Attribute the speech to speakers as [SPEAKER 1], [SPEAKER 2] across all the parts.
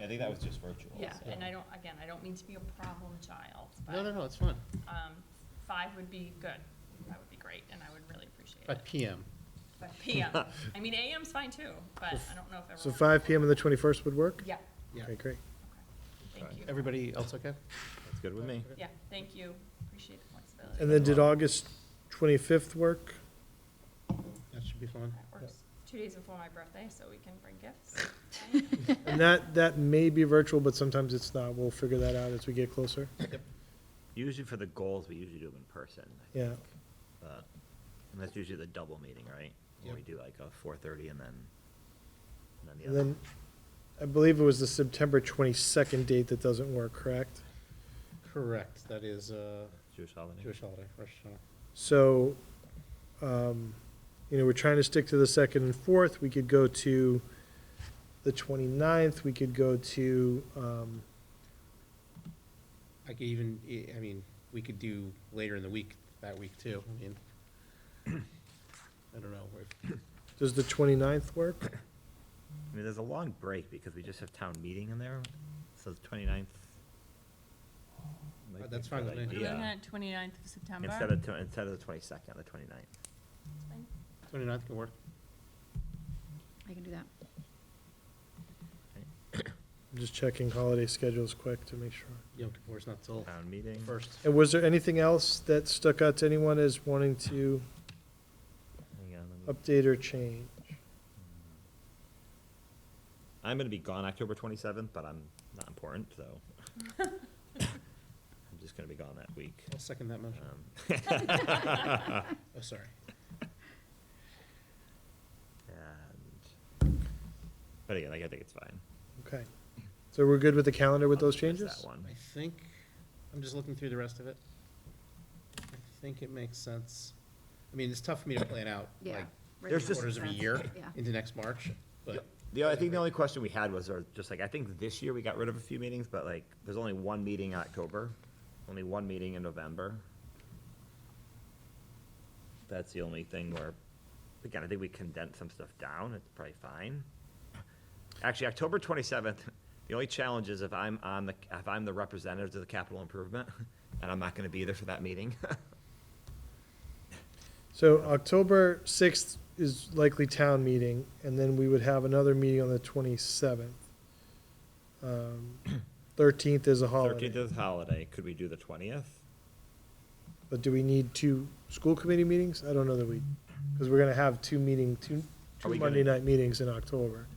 [SPEAKER 1] I think that was just virtual.
[SPEAKER 2] Yeah,
[SPEAKER 1] so.
[SPEAKER 2] and I don't, again, I don't mean to be a problem child,
[SPEAKER 3] No, no,
[SPEAKER 2] but,
[SPEAKER 3] no, it's fine.
[SPEAKER 2] um, five would be good. That would be great, and I would really appreciate
[SPEAKER 3] At
[SPEAKER 2] it.
[SPEAKER 3] PM.
[SPEAKER 2] But PM, I mean, AM's fine too, but I don't know if everyone.
[SPEAKER 4] So five PM on the twenty-first would work?
[SPEAKER 2] Yeah,
[SPEAKER 3] Yeah.
[SPEAKER 4] Okay, great.
[SPEAKER 2] thank you.
[SPEAKER 3] Everybody else okay?
[SPEAKER 1] That's good with me.
[SPEAKER 2] Yeah, thank you. Appreciate the flexibility.
[SPEAKER 4] And then did August twenty-fifth work?
[SPEAKER 3] That should be fine.
[SPEAKER 2] That works. Two days before my birthday, so we can bring gifts.
[SPEAKER 4] And that, that may be virtual, but sometimes it's not. We'll figure that out as we get closer.
[SPEAKER 5] Usually for the goals, we usually do them in person.
[SPEAKER 4] Yeah.
[SPEAKER 5] but- And that's usually the double meeting, right? Where we
[SPEAKER 3] Yep.
[SPEAKER 5] do like a four thirty and then, and then the
[SPEAKER 4] And
[SPEAKER 5] other.
[SPEAKER 4] then, I believe it was the September twenty-second date that doesn't work, correct?
[SPEAKER 3] Correct, that is uh,
[SPEAKER 5] Jewish holiday.
[SPEAKER 3] Jewish holiday, Rosh Hashanah.
[SPEAKER 4] So, um, you know, we're trying to stick to the second and fourth. We could go to the twenty-ninth. We could go to, um,
[SPEAKER 3] I could even, I- I mean, we could do later in the week, that week too. I mean, I don't know. if-
[SPEAKER 4] does the twenty-ninth work?
[SPEAKER 5] I mean, there's a long break because we just have town meeting in there, so the twenty-ninth.
[SPEAKER 3] that's fine with me. We're
[SPEAKER 2] We're looking at twenty-ninth of September.
[SPEAKER 5] Instead of, tw- instead of the twenty-second, the twenty-ninth.
[SPEAKER 3] Twenty-ninth can work.
[SPEAKER 6] I can do that.
[SPEAKER 4] I'm just checking holiday schedules quick to make sure.
[SPEAKER 3] Yom Kippur's not till
[SPEAKER 5] Town meeting.
[SPEAKER 3] first.
[SPEAKER 4] And was there anything else that stuck out to anyone as wanting to
[SPEAKER 5] Hang on, let me-
[SPEAKER 4] update or change?
[SPEAKER 5] Mm. I'm gonna be gone October twenty-seventh, but I'm not important, so. I'm just gonna be gone that week.
[SPEAKER 3] I'll second that motion.
[SPEAKER 5] Um,
[SPEAKER 3] Oh, sorry.
[SPEAKER 5] And, but again, like, I think it's fine.
[SPEAKER 4] Okay. So we're good with the calendar with
[SPEAKER 5] I'll
[SPEAKER 4] those
[SPEAKER 5] just miss
[SPEAKER 4] changes?
[SPEAKER 5] That one.
[SPEAKER 3] I think, I'm just looking through the rest of it. I think it makes sense. I mean, it's tough for me to plan out,
[SPEAKER 6] Yeah.
[SPEAKER 3] like,
[SPEAKER 6] right
[SPEAKER 5] There's
[SPEAKER 6] now.
[SPEAKER 5] just-
[SPEAKER 3] quarters of a year
[SPEAKER 6] Yeah.
[SPEAKER 3] into next March, but.
[SPEAKER 5] The, I think the only question we had was, or just like, I think this year we got rid of a few meetings, but like, there's only one meeting in October, only one meeting in November. That's the only thing where, again, I think we condensed some stuff down, it's probably fine. Actually, October twenty-seventh, the only challenge is if I'm on the, if I'm the representative to the capital improvement, and I'm not gonna be there for that meeting.
[SPEAKER 4] So October sixth is likely town meeting, and then we would have another meeting on the twenty-seventh. Um, Thirteenth is a
[SPEAKER 5] Thirteenth is
[SPEAKER 4] holiday,
[SPEAKER 5] holiday, could we do the twentieth?
[SPEAKER 4] but do we need two school committee meetings? I don't know that we, because we're gonna have two meeting, two,
[SPEAKER 5] Are
[SPEAKER 4] two
[SPEAKER 5] we
[SPEAKER 4] Monday
[SPEAKER 5] gonna-
[SPEAKER 4] night meetings in October.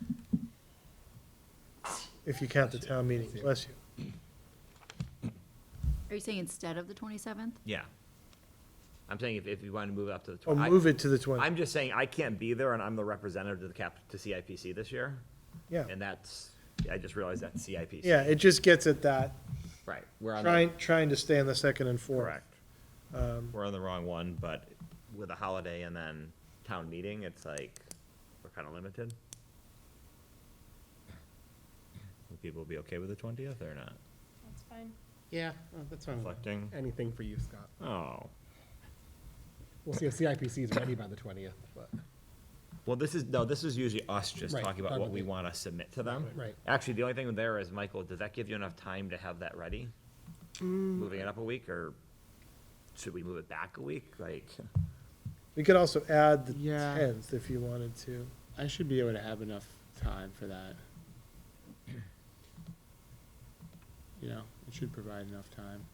[SPEAKER 4] If you count the town meeting, bless you.
[SPEAKER 6] Are you saying instead of the 27th?
[SPEAKER 5] Yeah. I'm saying if, if you want to move up to the
[SPEAKER 4] Or
[SPEAKER 5] twenty.
[SPEAKER 4] move it to the twentieth,
[SPEAKER 5] I'm just saying I can't be there and I'm the representative to the cap, to CIPC this year.
[SPEAKER 4] yeah.
[SPEAKER 5] And that's, I just realized that's CIPC.
[SPEAKER 4] Yeah, it just gets at that,
[SPEAKER 5] Right, we're on, the-
[SPEAKER 4] trying, trying to stay on the second and fourth.
[SPEAKER 5] correct. We're on the wrong one, but with a holiday and then town meeting, it's like, we're kind of limited. Would people be okay with the twentieth or not?
[SPEAKER 2] That's fine.
[SPEAKER 3] Yeah, oh, that's fine. with me.
[SPEAKER 5] Reflecting?
[SPEAKER 7] anything for you, Scott.
[SPEAKER 5] Oh.
[SPEAKER 7] We'll see if CIPC is ready by the twentieth, but
[SPEAKER 5] Well, this is, no, this is usually us just
[SPEAKER 7] Right,
[SPEAKER 5] talking about
[SPEAKER 7] talking
[SPEAKER 5] what
[SPEAKER 7] about
[SPEAKER 5] we
[SPEAKER 7] the-
[SPEAKER 5] want to submit to them.
[SPEAKER 7] Right.
[SPEAKER 5] Actually, the only thing there is, Michael, does that give you enough time to have that ready?
[SPEAKER 6] Mm.
[SPEAKER 5] Moving it up a week, or should we move it back a week? Like,
[SPEAKER 4] We could also add the
[SPEAKER 7] Yeah.
[SPEAKER 4] tenth if you wanted to.
[SPEAKER 7] I should be able to have enough time for that. You know, it should provide enough time.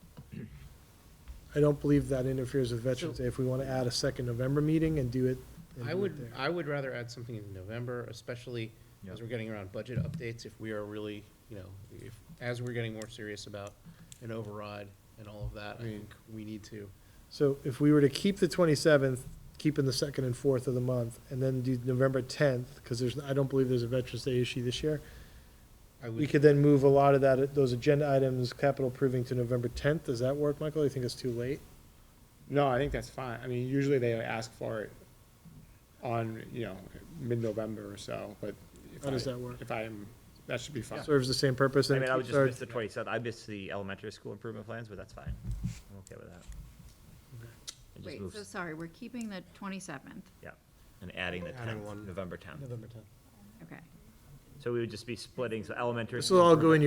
[SPEAKER 4] I don't believe that interferes with Veterans Day if we want to add a second November meeting and do it. and
[SPEAKER 3] I
[SPEAKER 4] do it
[SPEAKER 3] would,
[SPEAKER 4] there.
[SPEAKER 3] I would rather add something in November, especially as
[SPEAKER 5] Yeah.
[SPEAKER 3] we're getting around budget updates, if we are really, you know, if, as we're getting more serious about an override and all of that, I think we need to.
[SPEAKER 4] So if we were to keep the twenty-seventh, keeping the second and fourth of the month, and then do November tenth, because there's, I don't believe there's a Veterans Day issue this year.
[SPEAKER 3] I
[SPEAKER 4] We
[SPEAKER 3] would,
[SPEAKER 4] could then move a lot of that, those agenda items, capital approving to November tenth. Does that work, Michael? You think it's too late?
[SPEAKER 7] No, I think that's fine. I mean, usually they ask for it on, you know, mid-November or so, but. if
[SPEAKER 4] How does
[SPEAKER 7] I-
[SPEAKER 4] that work?
[SPEAKER 7] If I am, that should be fine.
[SPEAKER 4] Serves the same purpose.
[SPEAKER 5] I
[SPEAKER 4] and
[SPEAKER 5] mean, I would just
[SPEAKER 4] keeps our-
[SPEAKER 5] miss the twenty-seventh, I missed the elementary school improvement plans, but that's fine. I'm okay with that. It just
[SPEAKER 6] Wait, so
[SPEAKER 5] moves,
[SPEAKER 6] sorry, we're keeping the 27th.
[SPEAKER 5] yeah, and adding the
[SPEAKER 3] Adding
[SPEAKER 5] tenth,
[SPEAKER 3] one.
[SPEAKER 5] November tenth.
[SPEAKER 3] November tenth.
[SPEAKER 6] Okay.
[SPEAKER 5] So
[SPEAKER 8] So we would just be splitting, so elementary.
[SPEAKER 5] This will all go in your